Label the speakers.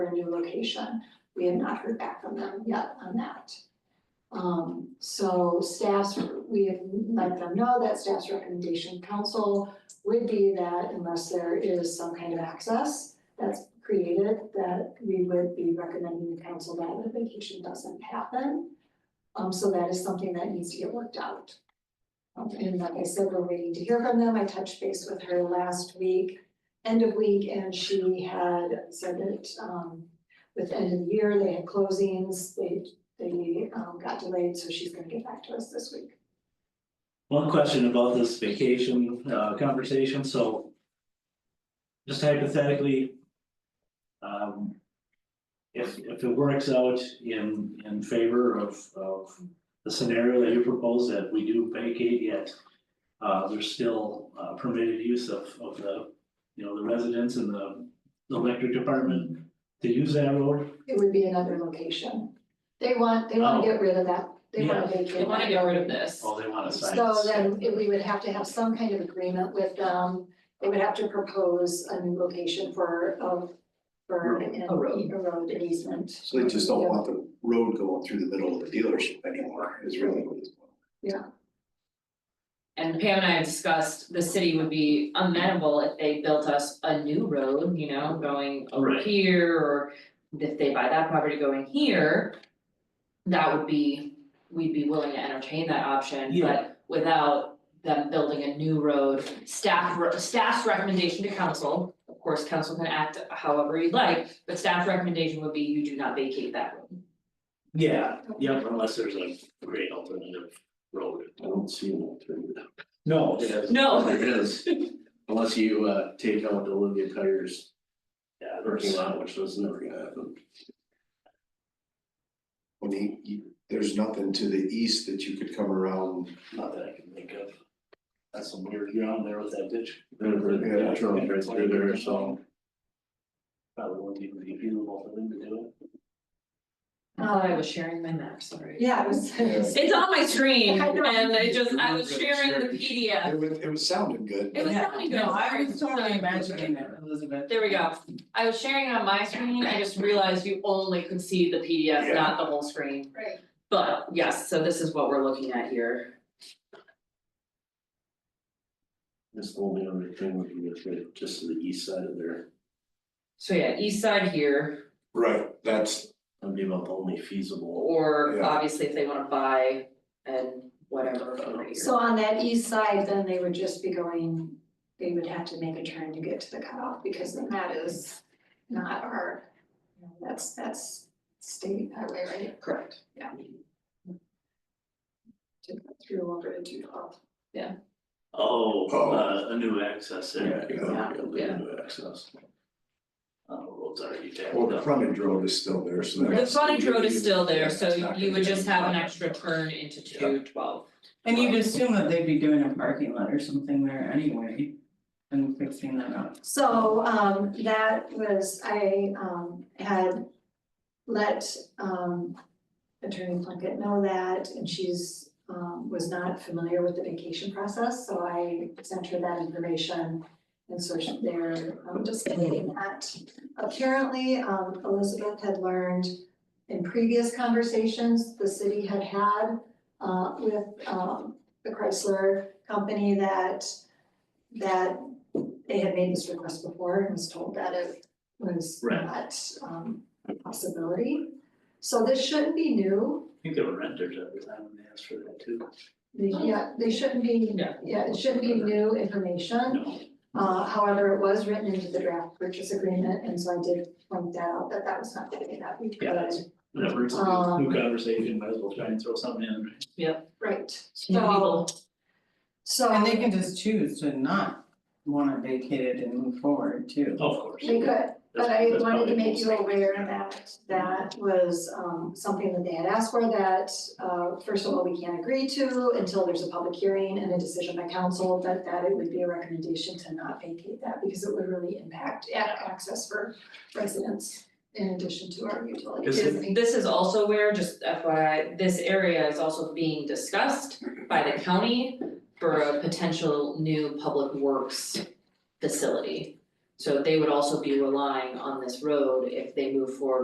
Speaker 1: for a new location. We have not heard back from them yet on that. Um, so staff's, we have let them know that staff's recommendation council would be that unless there is some kind of access that's created, that we would be recommending the council that the vacation doesn't happen. Um, so that is something that needs to get worked out. Um, and like I said, we're waiting to hear from them. I touched base with her last week, end of week, and she had said that, um, with the end of the year, they had closings, they, they, um, got delayed, so she's gonna get back to us this week.
Speaker 2: One question about this vacation uh conversation, so. Just hypothetically. Um. If if it works out in in favor of of the scenario that you propose that we do vacate yet. Uh, there's still uh permitted use of of the, you know, the residents and the the electric department to use that road.
Speaker 1: It would be another location. They want, they wanna
Speaker 2: Oh.
Speaker 1: get rid of that, they wanna vacate.
Speaker 3: They wanna
Speaker 1: that
Speaker 3: get rid
Speaker 1: building.
Speaker 3: of this.
Speaker 2: Oh, they want to sign.
Speaker 1: So then it- we would have to have some kind of agreement with them. They would have to propose a new location for, of, for an,
Speaker 3: A road.
Speaker 1: a road an easement.
Speaker 4: So they just don't want the road going through the middle of the dealership anymore, is really what it's.
Speaker 3: And Pam and I have discussed, the city would be amenable if they built us a new road, you know, going over
Speaker 2: Right.
Speaker 3: here, or if they buy that property going here. That would be, we'd be willing to entertain that option,
Speaker 2: Yeah.
Speaker 3: but without them building a new road, staff, re- staff's recommendation to council. Of course, council can act however you'd like, but staff's recommendation would be you do not vacate that road.
Speaker 2: Yeah, yeah, unless there's a great alternative road.
Speaker 5: I don't see an alternative.
Speaker 2: No, it
Speaker 5: There
Speaker 2: is.
Speaker 5: is-
Speaker 3: No.
Speaker 5: There is, unless you uh take out the Olivia Tires
Speaker 2: Yeah,
Speaker 5: parking lot, which was never gonna happen.
Speaker 4: When he, he- there's nothing to the east that you could come around,
Speaker 2: Not that I can think of. That's some weird ground there with that ditch.
Speaker 5: There were
Speaker 4: Yeah.
Speaker 5: trucks right through there, so
Speaker 2: Probably wouldn't even be feasible for them to do
Speaker 3: I thought I was sharing my map, sorry.
Speaker 1: Yeah, it was,
Speaker 4: Yeah.
Speaker 3: It's on my screen
Speaker 1: I know.
Speaker 3: and it just, I was sharing the
Speaker 4: it
Speaker 3: PDF.
Speaker 4: was, it was sounding good.
Speaker 3: It was sounding good.
Speaker 6: No, I
Speaker 3: sorry.
Speaker 6: was totally imagining it, Elizabeth.
Speaker 3: There we go. I was sharing it on my screen. I just realized you only could see the PDF, not the whole screen.
Speaker 1: right.
Speaker 3: But yes, so this is what we're looking at here.
Speaker 5: this only other thing would be just right, just to the east side of there.
Speaker 3: So yeah, east side here,
Speaker 4: Right, that's,
Speaker 5: That'd be about the only feasible.
Speaker 3: or
Speaker 4: Yeah.
Speaker 3: obviously if they wanna buy and whatever over here.
Speaker 1: So on that east side, then they would just be going, they would have to make a turn to get to the cutoff because then that is not our, you know, that's, that's state highway, right?
Speaker 3: Correct.
Speaker 1: To go through over to two twelve.
Speaker 2: Oh,
Speaker 4: Oh.
Speaker 2: uh, a new access there.
Speaker 5: you know,
Speaker 1: Yeah,
Speaker 5: you'll be
Speaker 3: yeah.
Speaker 5: able to access.
Speaker 2: Uh, roads already tapped
Speaker 4: well, the
Speaker 2: out.
Speaker 4: frontage road is still there, so
Speaker 3: The
Speaker 4: that's.
Speaker 3: frontage road is still
Speaker 4: Yeah,
Speaker 3: there,
Speaker 4: it's
Speaker 3: so
Speaker 4: not
Speaker 3: you
Speaker 4: gonna
Speaker 3: would just
Speaker 4: be-
Speaker 3: have an extra turn into two twelve.
Speaker 6: And you'd assume that they'd be doing a parking lot or something there anyway, and fixing that up.
Speaker 1: So um that was, I um had let um Attorney Plunkett know that and she's um was not familiar with the vacation process, so I sent her that information. And so she- they're um just getting that. Apparently, um Elizabeth had learned in previous conversations the city had had uh with um the Chrysler company that that they had made this request before and was told that it was
Speaker 2: Right.
Speaker 1: not um a possibility. So this shouldn't be new,
Speaker 2: I think there were renters at the time when they asked for that too.
Speaker 1: They- yeah, they shouldn't be,
Speaker 3: Yeah.
Speaker 1: yeah, it shouldn't be new information.
Speaker 2: No,
Speaker 1: Uh, however, it was written into the draft purchase agreement, and so I did point that out, that that was not something that we
Speaker 2: Yeah, that's-
Speaker 1: could,
Speaker 2: whenever it's a
Speaker 1: Um.
Speaker 2: new- new conversation, might as well try and throw something in. right?
Speaker 1: right,
Speaker 3: New people.
Speaker 1: so.
Speaker 6: And they can just choose to not wanna vacate it and move forward too.
Speaker 2: Of course.
Speaker 1: They could,
Speaker 2: That's-
Speaker 1: But I
Speaker 2: that's
Speaker 1: wanted
Speaker 2: probably
Speaker 1: to make you
Speaker 2: most-
Speaker 1: aware that that was um something that they had asked for that uh first of all, we can't agree to until there's a public hearing and a decision by council that that it would be a recommendation to not vacate that because it would really impact a- access for residents in addition to our utilities.
Speaker 2: Is
Speaker 3: Because this is also where, just FYI, this area is also being discussed by the county for a potential new public works facility. So they would also be relying on this road if they move forward